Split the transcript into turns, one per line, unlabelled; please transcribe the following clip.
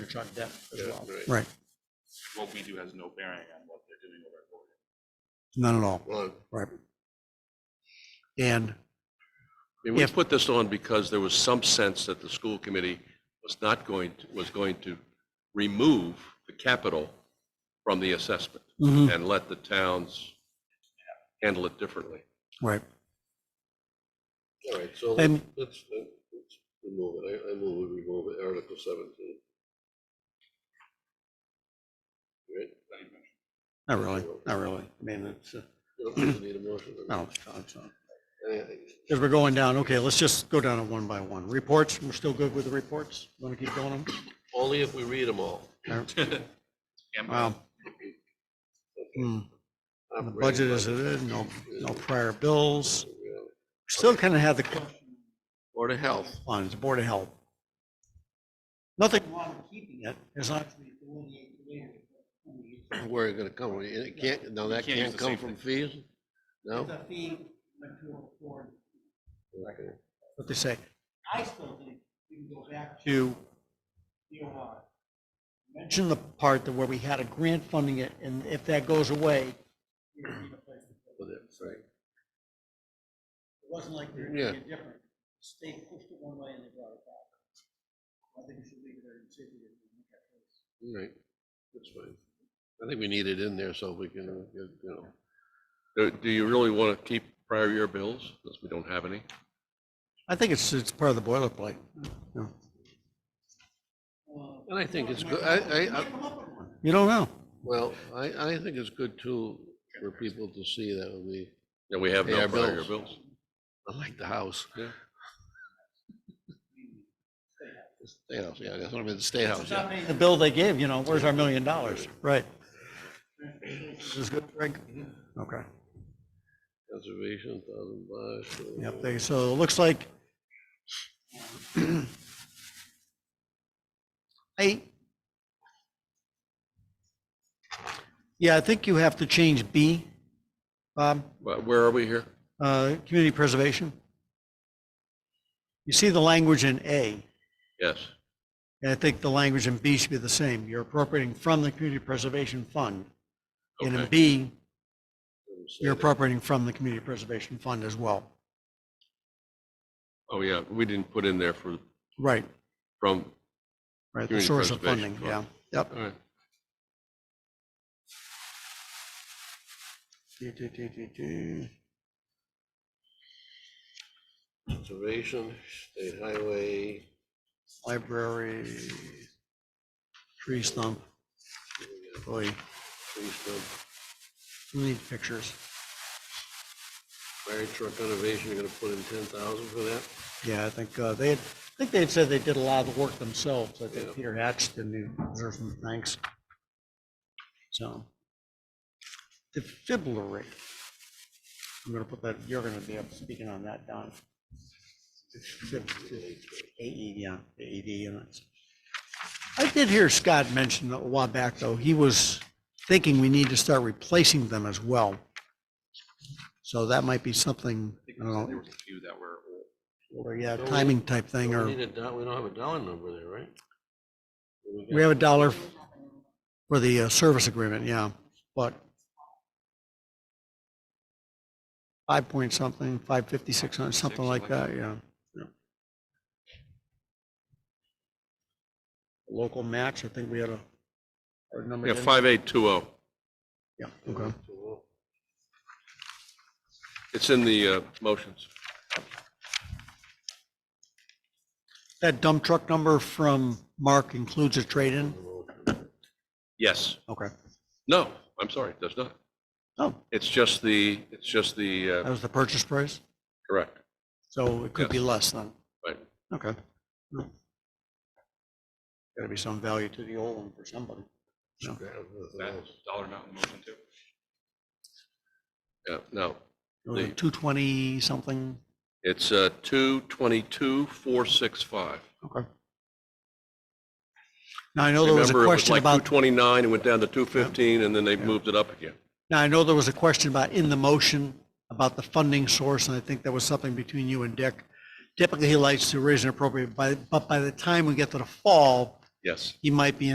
church on debt as well.
Yeah, right.
Right,
What we do has no bearing on what they're doing over at Golden.
none at all,
Well,
right. And,
I mean, we
If-
put this on because there was some sense that the school committee was not going, to- was going to remove the capital from the assessment
mhm,
and let the towns handle it differently.
right,
All right, so let's,
And-
let's let's remove it. I, I move we remove it, Article seventeen. Right?
not really, not really. I mean, it's, uh,
You don't really need a motion. or-
no, it's not, it's not.
Anything.
As we're going down, okay, let's just go down it one by one. Reports, we're still good with the reports? Want to keep going? on them?
Only if we read them all.
Yeah, but
Wow. Hmm, and The budget is, it is, no, no prior bills. Still kind of have the question
Board of Health.
on the Board of Health. Nothing wrong with keeping it, as long as we delineate the way it-
Where it gonna come, from? it can't, no, that
can't use
can't
the
come
same
from fees? No?
The fee went to a board,
Okay.
What they say. I still think we can go back to the OR. Mention the part that where we had a grant funding it, and if that goes away. we would need a place to put it.
With it, right.
It wasn't like we were
Yeah.
doing it different. The State pushed it one way and they brought it back. I think we should leave it there and see if we can make that case.
All right, that's fine. I think we need it in there so we can, uh, you know,
Do do you really want to keep prior year bills, since we don't have any?
I think it's, it's part of the boilerplate. Yeah.
and I think it's good, I, I, I-
You don't know.
well, I, I think it's good too for people to see that when we,
Yeah, we have
Pay
no
our
prior year
bills.
bills.
I like the house.
Yeah.
The State house, yeah, that's what I mean, the state house, yeah.
The bill they gave, you know, where's our million dollars? Right. This is good, Greg? Okay.
Conservation, thousand bucks. uh,
Yep, they, so it looks like. I. Yeah, I think you have to change B, Bob,
But where are we here?
uh, community preservation. You see the language in A,
Yes,
and I think the language in B should be the same. You're appropriating from the community preservation fund. And in
Okay.
B,
say
you're
that.
appropriating from the community preservation fund as well.
oh, yeah, we didn't put in there for,
Right,
from,
right, the
Community
source of
preservation
funding, yeah, yep.
all right.
Conservation, state highway,
library, tree stump. Boy,
tree stump,
we need pictures.
fire truck renovation, you're gonna put in ten thousand for that?
Yeah, I think uh, they, had I think they had said they did a lot of the work themselves. I
Yeah.
think Peter Hatch did, and he deserves some thanks. So. Defibrillary. I'm gonna put that, you're gonna be up speaking on that, Don. Defib- AED, E, yeah, AED units. I did hear Scott mention a while back, though, he was thinking we need to start replacing them as well. So that might be something,
I think
I
we said
don't
there
know,
was a few that were old.
or yeah,
Don't we-
timing type thing,
Don't
or.
We need a do- we don't have a dollar number there, right? What do
We
got?
have a dollar for the uh, service agreement, yeah, but five point something, five fifty, six hundred, something like that, yeah. yeah. Local match, I think we had a. our number
Yeah,
didn't-
5820.
Yeah, okay.
It's in the uh, motions.
That dump truck number from Mark includes a trade-in?
Yes.
Okay.
No, I'm sorry, it does not.
Oh,
It's just the, it's just the,
that
uh,
was the purchase price,
correct,
so it could be less than,
right.
okay. Gotta be some value to the old one for somebody.
That dollar amount in the motion too.
Oh, Yeah, no, The-
Two twenty something,
it's uh, 222,465.
okay. Now, I know there was a
Remember, it was
question
like
about,
229, it went down to 215, and then they moved it up again.
now, I know there was a question about in the motion about the funding source, and I think that was something between you and Dick. Typically, he likes to raise an appropriate, by, but by the time we get to the fall,
Yes.
he might be